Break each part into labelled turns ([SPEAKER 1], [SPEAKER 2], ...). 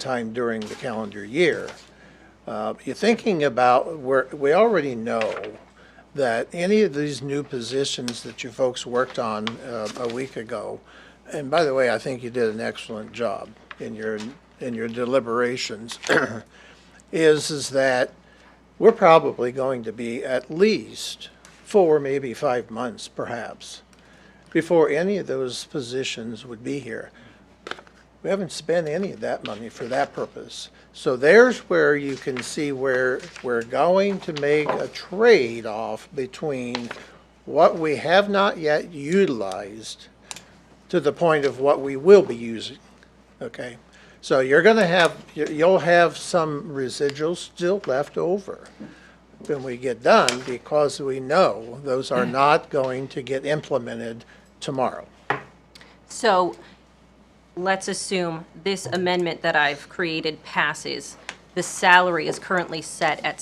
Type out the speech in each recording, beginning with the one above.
[SPEAKER 1] time during the calendar year. Uh, You're thinking about, we're, we already know that any of these new positions that you folks worked on uh, a week ago, and by the way, I think you did an excellent job in your, in your deliberations, is, is that we're probably going to be at least four, maybe five months perhaps, before any of those positions would be here. We haven't spent any of that money for that purpose. So there's where you can see where we're going to make a trade-off between what we have not yet utilized to the point of what we will be using, okay? So you're gonna have, you- you'll have some residuals still left over when we get done because we know those are not going to get implemented tomorrow.
[SPEAKER 2] So let's assume this amendment that I've created passes. The salary is currently set at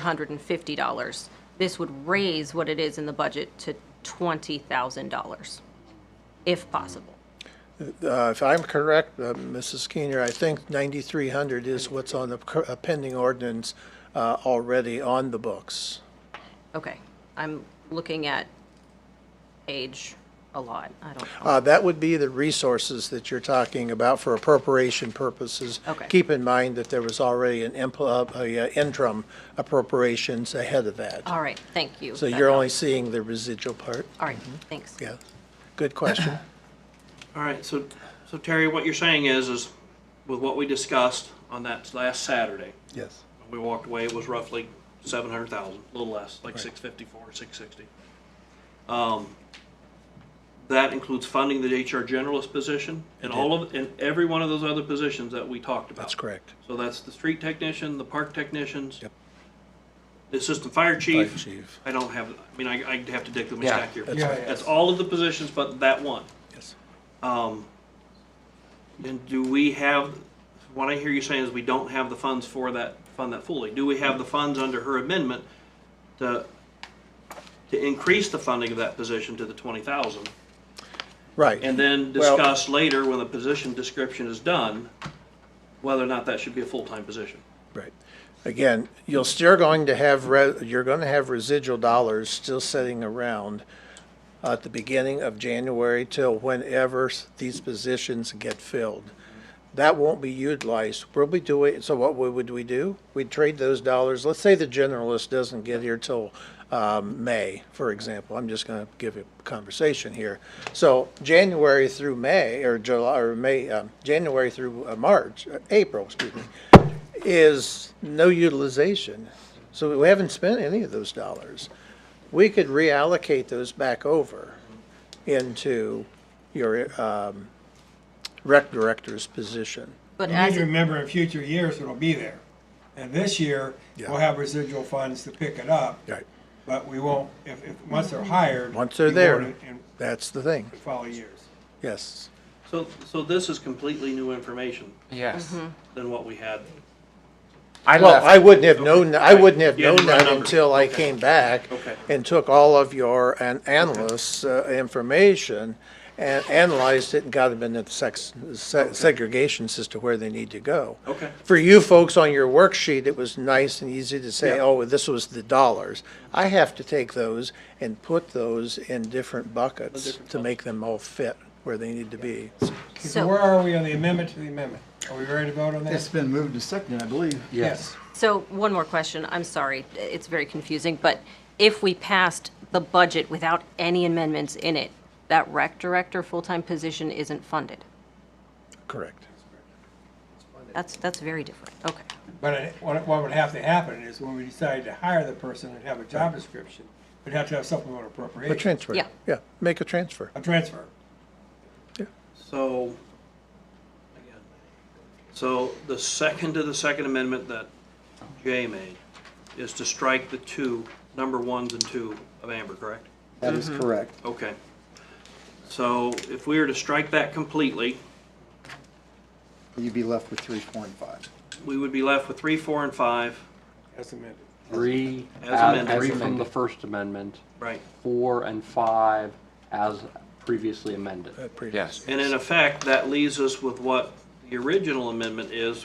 [SPEAKER 2] $7,450. This would raise what it is in the budget to $20,000, if possible.
[SPEAKER 1] Uh, If I'm correct, uh, Mrs. Keener, I think 9,300 is what's on the cur- uh, pending ordinance uh, already on the books.
[SPEAKER 2] Okay, I'm looking at age a lot. I don't know.
[SPEAKER 1] Uh, That would be the resources that you're talking about for appropriation purposes.
[SPEAKER 2] Okay.
[SPEAKER 1] Keep in mind that there was already an impl- uh, a, uh, interim appropriations ahead of that.
[SPEAKER 2] All right, thank you.
[SPEAKER 1] So
[SPEAKER 2] That
[SPEAKER 1] you're only
[SPEAKER 2] helps.
[SPEAKER 1] seeing the residual part?
[SPEAKER 2] All right, thanks.
[SPEAKER 1] Yeah. Good question.
[SPEAKER 3] All right, so, so Terry, what you're saying is, is with what we discussed on that last Saturday,
[SPEAKER 1] Yes.
[SPEAKER 3] when we walked away, it was roughly seven hundred thousand, a little less, like six fifty-four, six sixty. Um, that includes funding the HR generalist position and all of, and every one of those other positions that we talked about.
[SPEAKER 1] That's correct.
[SPEAKER 3] So that's the street technician, the park technicians.
[SPEAKER 1] Yep.
[SPEAKER 3] The assistant fire
[SPEAKER 1] Fire
[SPEAKER 3] chief.
[SPEAKER 1] chief.
[SPEAKER 3] I don't have, I mean, I, I'd have to dig through my
[SPEAKER 4] Yeah.
[SPEAKER 3] stack here.
[SPEAKER 1] That's Yeah, right.
[SPEAKER 3] That's all of the positions but that one.
[SPEAKER 1] Yes.
[SPEAKER 3] Um, and do we have, what I hear you saying is we don't have the funds for that, fund that fully. Do we have the funds under her amendment to, to increase the funding of that position to the twenty thousand?
[SPEAKER 1] Right.
[SPEAKER 3] And then
[SPEAKER 1] Well-
[SPEAKER 3] discuss later, when the position description is done, whether or not that should be a full-time position?
[SPEAKER 1] Right. Again, you'll still going to have, re- you're going to have residual dollars still sitting around at the beginning of January till whenever s- these positions get filled. That won't be utilized. We'll be doing, so what we- would we do? We'd trade those dollars. Let's say the generalist doesn't get here till um, May, for example. I'm just going to give a conversation here. So January through May, or July, or May, um, January through uh, March, uh, April, excuse me, is no utilization. So we haven't spent any of those dollars. We could reallocate those back over into your um, rec director's position.
[SPEAKER 2] But
[SPEAKER 5] You need
[SPEAKER 2] as,
[SPEAKER 5] to
[SPEAKER 2] it-
[SPEAKER 5] remember in future years, it'll be there. And this year, we'll have residual funds to pick it up,
[SPEAKER 1] Right.
[SPEAKER 5] but we won't, if, if, once they're hired.
[SPEAKER 1] Once they're
[SPEAKER 5] you
[SPEAKER 1] there,
[SPEAKER 5] won't In
[SPEAKER 1] that's the thing,
[SPEAKER 5] in follow years.
[SPEAKER 1] yes.
[SPEAKER 3] So, so this is completely new information
[SPEAKER 4] Yes.
[SPEAKER 3] than what we had.
[SPEAKER 4] I
[SPEAKER 1] Well,
[SPEAKER 4] left.
[SPEAKER 1] I wouldn't have known, I wouldn't have
[SPEAKER 3] You had
[SPEAKER 1] known
[SPEAKER 3] the right
[SPEAKER 1] that
[SPEAKER 3] number.
[SPEAKER 1] until I
[SPEAKER 3] Okay.
[SPEAKER 1] came back
[SPEAKER 3] Okay.
[SPEAKER 1] and took all of your an- analysts' uh, information and analyzed it and got them into the sex, se- segregations as to where they need to go.
[SPEAKER 3] Okay.
[SPEAKER 1] For you folks on your worksheet, it was nice and easy to say, oh, this was the dollars. I have to take those and put those in different buckets to make them all fit where they need to be.
[SPEAKER 5] So where are we on the amendment to the amendment? Are we ready to vote on
[SPEAKER 6] It's
[SPEAKER 5] that?
[SPEAKER 6] been moved to second, I believe.
[SPEAKER 4] Yes.
[SPEAKER 2] So one more question, I'm sorry, it's very confusing, but if we passed the budget without any amendments in it, that rec director full-time position isn't funded.
[SPEAKER 1] Correct.
[SPEAKER 2] That's, that's very different, okay.
[SPEAKER 5] But I- what, what would have to happen is when we decide to hire the person and have a job description, we'd have to have supplemental
[SPEAKER 1] A
[SPEAKER 5] appropriation,
[SPEAKER 1] transfer.
[SPEAKER 2] Yeah.
[SPEAKER 1] Yeah, make a transfer.
[SPEAKER 5] a transfer.
[SPEAKER 3] So, again, so the second to the second amendment that Jay made is to strike the two, number ones and two of Amber, correct?
[SPEAKER 6] That is correct.
[SPEAKER 3] Okay. So if we were to strike that completely,
[SPEAKER 6] You'd be left with three point five.
[SPEAKER 3] we would be left with three, four, and five,
[SPEAKER 5] That's amended.
[SPEAKER 7] Three,
[SPEAKER 3] As
[SPEAKER 7] add
[SPEAKER 3] amended.
[SPEAKER 7] three
[SPEAKER 3] As
[SPEAKER 7] from the
[SPEAKER 6] amended.
[SPEAKER 7] First Amendment,
[SPEAKER 3] right?
[SPEAKER 7] four and five as previously amended.
[SPEAKER 1] uh, previous.
[SPEAKER 4] Yes.
[SPEAKER 3] And in effect, that leaves us with what the original amendment is,